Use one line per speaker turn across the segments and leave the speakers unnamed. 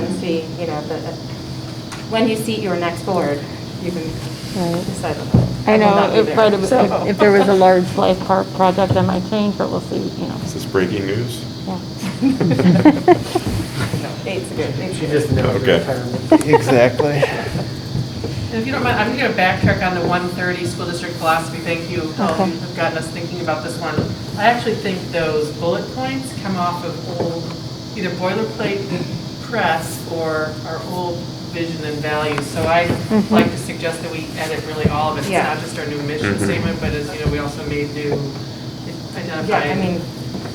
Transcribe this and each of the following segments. see, you know, the, when you seat your next board, you can
Right.
decide on that.
I
will
know,
not be
if,
there,
right, if-
so-
if if there was a large life park project, I might change, but we'll see, you know,
Is this breaking news?
yeah.
No, Eight's a good, eight's
She
a good.
just knows
Okay.
retirement.
Exactly.
And If you don't mind, I'm going to backtrack on the 130 school district philosophy. Thank you, Paul,
Okay.
you have gotten us thinking about this one. I actually think those bullet points come off of old, either boilerplate press or our old vision and values. So I like to suggest that we edit really all of it. It's
Mm-hmm. Yeah.
not just our new mission
Mm-hmm.
Mhm.
statement, but as, you know, we also made new, identified.
Yeah, I mean,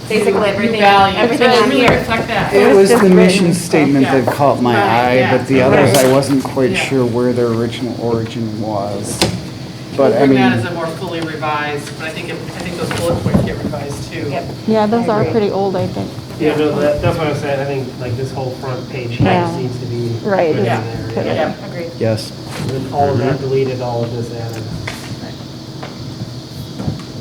basically
new
everything,
values.
everything
Really,
on
really
here.
Reflect that.
It was
just
the
written,
mission
so-
statement that
Yeah.
caught my
Right,
eye,
yeah.
but the others, I wasn't quite
Yeah.
sure where their original origin was.
We'll
But I
bring that as a
mean,
more fully revised, but I think, it- I think those bullet points get revised too.
Yep.
Yeah, those
I
are
agree.
pretty old, I think.
Yeah, no, that, that's what I was saying, I think like this whole front page
Yeah.
text needs to be.
Right.
put in
Yeah.
there,
Put
yeah.
Yeah.
Agreed.
yes,
And then All of that deleted, all of this added.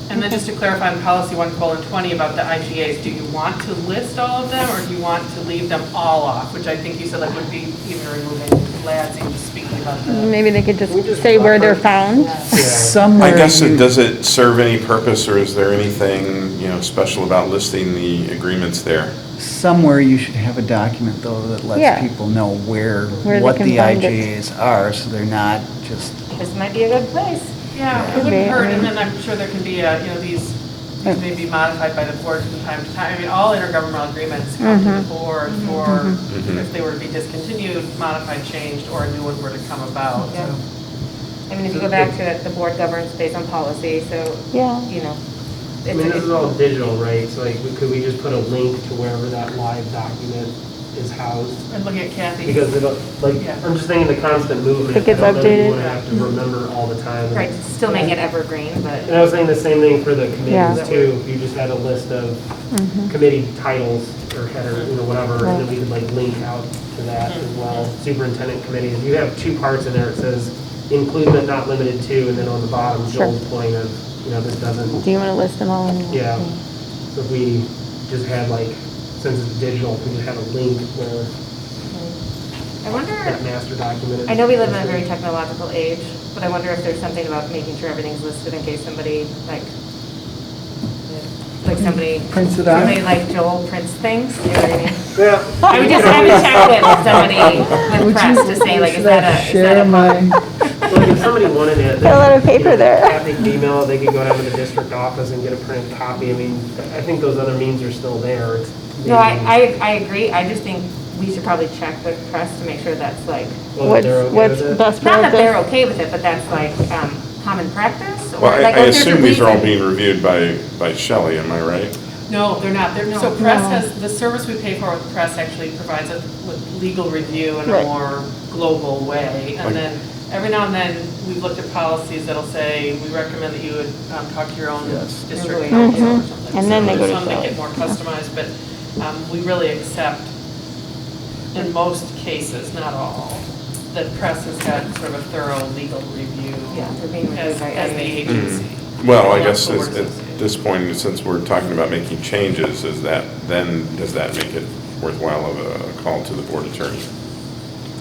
And then just to clarify on policy one colon twenty about the IGAs, do you want to list all of them or do you want to leave them all off? Which I think you said that would be even removing lads and just speaking about the.
Maybe they could just say where they're found.
Yeah.
somewhere.
I guess, it
you-
does it serve any purpose, or is there anything, you know, special about listing the agreements there?
Somewhere you should have a document, though, that
Yeah.
lets people know where,
Where they
what
can
the
find it.
IGAs are, so they're not just,
This might be a good place.
Yeah,
Could be,
it wouldn't
I
hurt,
mean-
and then I'm sure there can be, uh, you know, these, these may be modified by the board from time to time. I mean, all intergovernmental agreements come to the board for,
Mhm.
if they were to be discontinued, modified, changed, or a new one were to come about.
Yeah.
So
I mean, if you go back to it, the board governs based on policy, so,
Yeah.
you know.
I mean, this
it's-
is all digital, right? So like, we- could we just put a link to wherever that live document is housed?
I'm looking at Kathy.
Because it'll, like,
Yeah.
I'm just thinking the constant movement.
It gets
I don't know if
updated.
You want to have to remember all the time.
Right, still make it evergreen,
And
but
I was saying the same thing for the
Yeah. Mm-hmm.
committees too. If You just had a list of committee titles or header, you know, whatever, and then we could like link out to that as
Mm-hmm.
well. Superintendent committee, if you have two parts in there, it says include but not limited to, and then on the bottom,
Sure.
Joel's point of, you know, this doesn't,
Do you want to list them all? in one
yeah.
thing?
So if we just had like, since it's digital, if we just had a link where
I wonder,
that master document is.
I know we live in a very technological age, but I wonder if there's something about making sure everything's listed in case somebody, like, like somebody.
Prints it out.
Somebody like Joel prints things, you know what I mean?
Yeah.
I would just, I would check it with somebody with press to say, like, is that a, is that a?
Like if somebody wanted it.
Got a lot of
they- you
paper
know,
there.
Kathy could email, it, they could go down to the district office and get a printed copy. I mean, I think those other means are still there. It's
No, I,
maybe
I, I agree, I just think we should probably check with press to make sure that's like,
whether they're
What's,
okay
what's
with it.
best
not that they're
practice?
okay with it, but that's like, um, common practice? or
Well, I-
like,
I
if there's a
assume these are all
reason-
being reviewed by, by Shelley, am I right?
No, they're not. They're, so press has, the service we pay for with press actually provides it with legal review in a
Right.
more global way.
Like-
And then, every now and then, we've looked at policies that'll say, we recommend that you would um, talk to your own
Yes.
district
Mhm.
council or something.
And then
So
they go to
Some make
Shelley.
it more customized, but um, we really accept, in most cases, not all, that press has had sort of a thorough legal review
Yeah, they're being reviewed
as,
by
as the
others.
agency.
Mm-hmm. Well, I
Not
guess
the
at
board
at
association.
this point, since we're talking about making changes, is that, then, does that make it worthwhile of a call to the board attorney?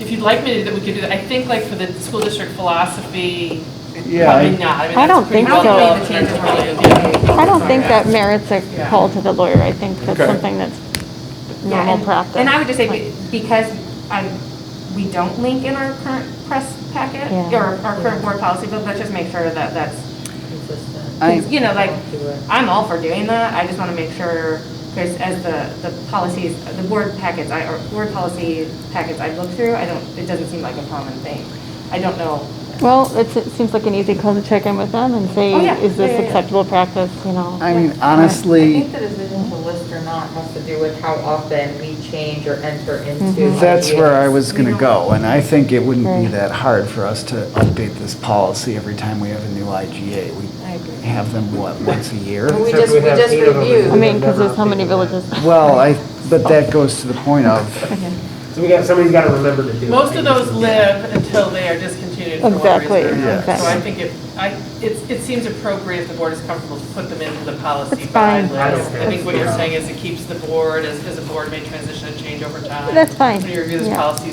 If you'd like me to, that we could do that. I think like for the school district philosophy,
Yeah,
probably
I-
not. mean,
I
that's
don't
pretty
think
well
so.
developed in
Changes
our
really-
portfolio, yeah.
I don't think that merits a call to the lawyer. I think that's
Okay.
something that's
Yeah,
normal
and-
practice.
And I would just say, be- because I, we don't link in our current press packet,
Yeah.
or our current board policy book, let's just make sure that that's,
I,
you know, like, I'm all for doing that, I just want to make sure, because as the, the policies, the board packets, I, or board policy packets I look through, I don't, it doesn't seem like a common thing. I don't know,
Well, it's, it seems like an easy call to check in with them and say,
Oh, yeah.
is
Yeah, yeah,
this
yeah.
acceptable practice, you know?
I mean,
I
honestly,
think the decision to list or not has to do with how often we change or enter into.
Mhm. That's where I was
We
going to
don't-
go, and I think it wouldn't be
Right.
that hard for us to update this policy every time we have a new IGA.
I agree.
We have them, what, once a year?
We
Except
just, we
have
just
eight of them.
reviewed.
I mean, because
Never
there's how many
updated that.
villages.
Well, I, but that goes to the point of,
So we got, somebody's got to remember to do it.
Most of those live until they are discontinued for one reason
Exactly,
or another. So
exactly.
I think it, I, it, it seems appropriate if the board is comfortable to put them into the policy
That's fine.
by list.
I don't
I think what you're
care.
saying is it keeps the board, as, as a board may transition and change over time.
That's fine,
When you review this
yeah.
policy,